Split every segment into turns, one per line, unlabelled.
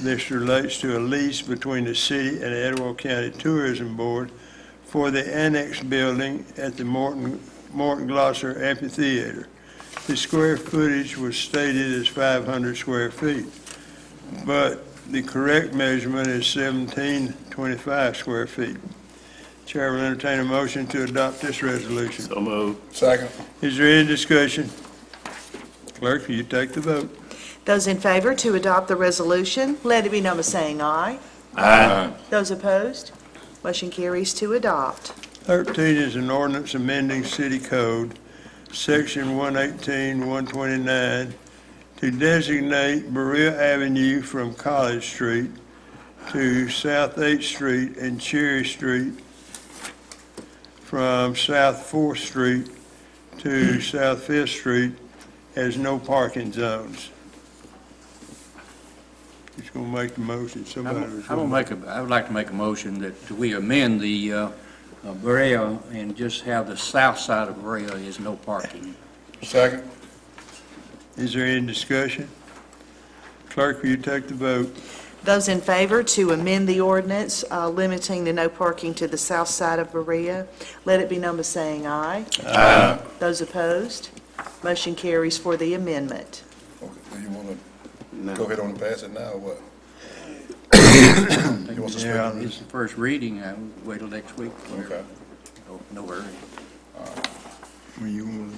This relates to a lease between the city and the Etowah County Tourism Board for the annex building at the Morton, Morton Glosser Amphitheater. The square footage was stated as 500 square feet, but the correct measurement is 1725 square feet. Chair will entertain a motion to adopt this resolution.
So moved.
Second.
Is there any discussion? Clerk, will you take the vote?
Those in favor to adopt the resolution, let it be known by saying aye.
Aye.
Those opposed, motion carries to adopt.
13 is an ordinance amending city code, section 118, 129, to designate Berea Avenue from College Street to South 8th Street and Cherry Street from South 4th Street to South 5th Street as no parking zones. Who's going to make the motion?
I'm
Somebody
I'm
was
gonna
going
make a, I would like to make a motion that we amend the uh, uh, Brea and just have the south side of Brea is no parking.
Second.
to. Is there any discussion? Clerk, will you take the vote?
Those in favor to amend the ordinance uh, limiting the no parking to the south side of Berea, let it be known by saying aye. Aye. Those opposed, motion carries for the amendment.
Okay, do you want to go ahead on and pass it now, or what? You want to
Yeah.
suspend?
It's the first reading, I would wait till next week.
Okay.
No- No hurry.
Well, you want,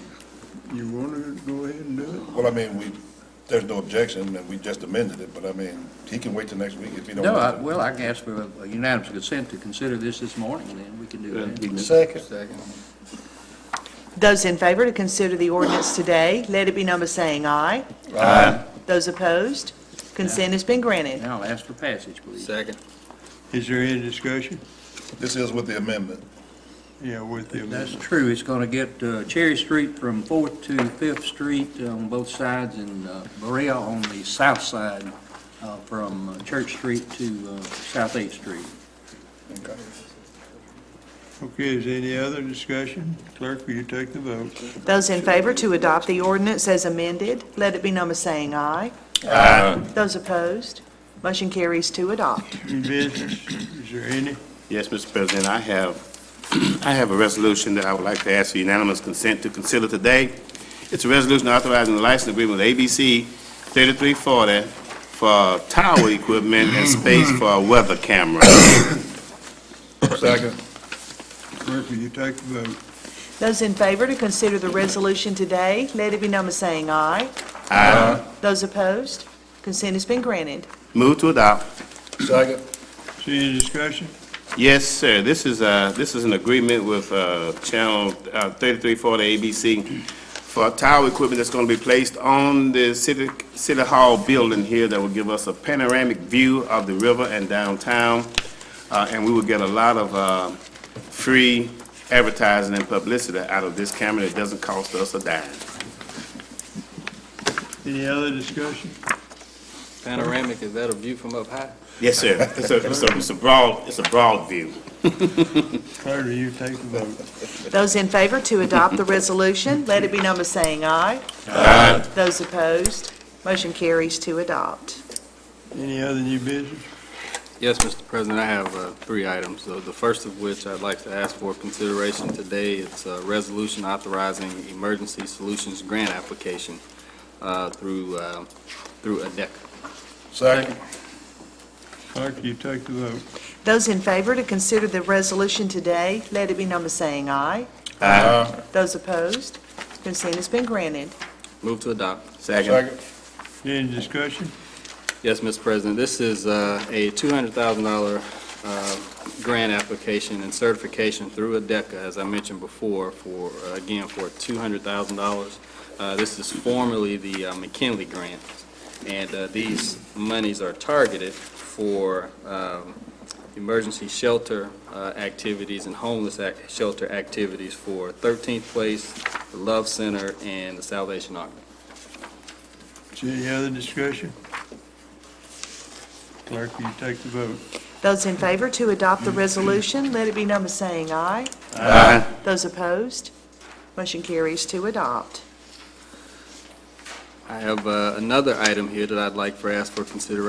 you want to go ahead and do
Well, I mean, we, there's no objection, and we just amended it, but I mean, he can wait till next week if he don't
No, I-
want
well, I can ask for a unanimous consent to consider this this morning, then we can do
Good.
that.
to. Second.
Those in favor to consider the ordinance today, let it be known by saying aye.
Aye.
Those opposed, consent has been granted.
Now, I'll ask for passage, please.
Second.
it? Is there any discussion?
This is with the amendment.
Yeah, with the
That's
amendment.
true, it's going to get uh, Cherry Street from Fourth to Fifth Street on both sides, and uh, Berea on the south side uh, from uh, Church Street to uh, South Eighth Street.
Okay.
Okay, is there any other discussion? Clerk, will you take the vote?
Those in favor to adopt the ordinance as amended, let it be known by saying aye. Those opposed, motion carries to adopt.
New business, is there any?
Yes, Mr. President, I have, I have a resolution that I would like to ask for unanimous consent to consider today. It's a resolution authorizing the license agreement with ABC 3340 for tower equipment and space for a weather camera.
Second.
Clerk, will you take the vote?
Those in favor to consider the resolution today, let it be known by saying aye.
Aye.
Those opposed, consent has been granted.
Move to adopt.
Second.
Is there any discussion?
Yes, sir. This is, uh, this is an agreement with, uh, Channel uh, 3340 ABC for tower equipment that's gonna be placed on the city, city hall building here that will give us a panoramic view of the river and downtown. Uh, and we will get a lot of, uh, free advertising and publicity out of this camera. It doesn't cost us a dime.
Any other discussion?
Panoramic, is that a view from up high?
Yes, sir. It's a, it's a, it's a broad, it's a broad view.
Clerk, will you take the vote?
Those in favor to adopt the resolution, let it be known by saying aye. Aye. Those opposed, motion carries to adopt.
Any other new business?
Yes, Mr. President, I have uh, three items, though. The first of which I'd like to ask for consideration today. It's a resolution authorizing emergency solutions grant application uh, through, uh, through ADEC.
Second.
Clerk, will you take the vote?
Those in favor to consider the resolution today, let it be known by saying aye.
Aye.
Those opposed, consent has been granted.
Move to adopt.
Second.
Second.
Any discussion?
Yes, Mr. President, this is uh, a $200,000 uh, grant application and certification through ADECA, as I mentioned before, for, uh, again, for $200,000. Uh, This is formerly the uh, McKinley Grant, and uh, these monies are targeted for um, emergency shelter uh, activities and homeless ac- shelter activities for 13th Place, the Love Center, and the Salvation Army.
Is there any other discussion? Clerk, will you take the vote?
Those in favor to adopt the resolution, let it be known by saying aye.
Aye.
Those opposed, motion carries to adopt.
I have uh, another item here that I'd like for ask for consideration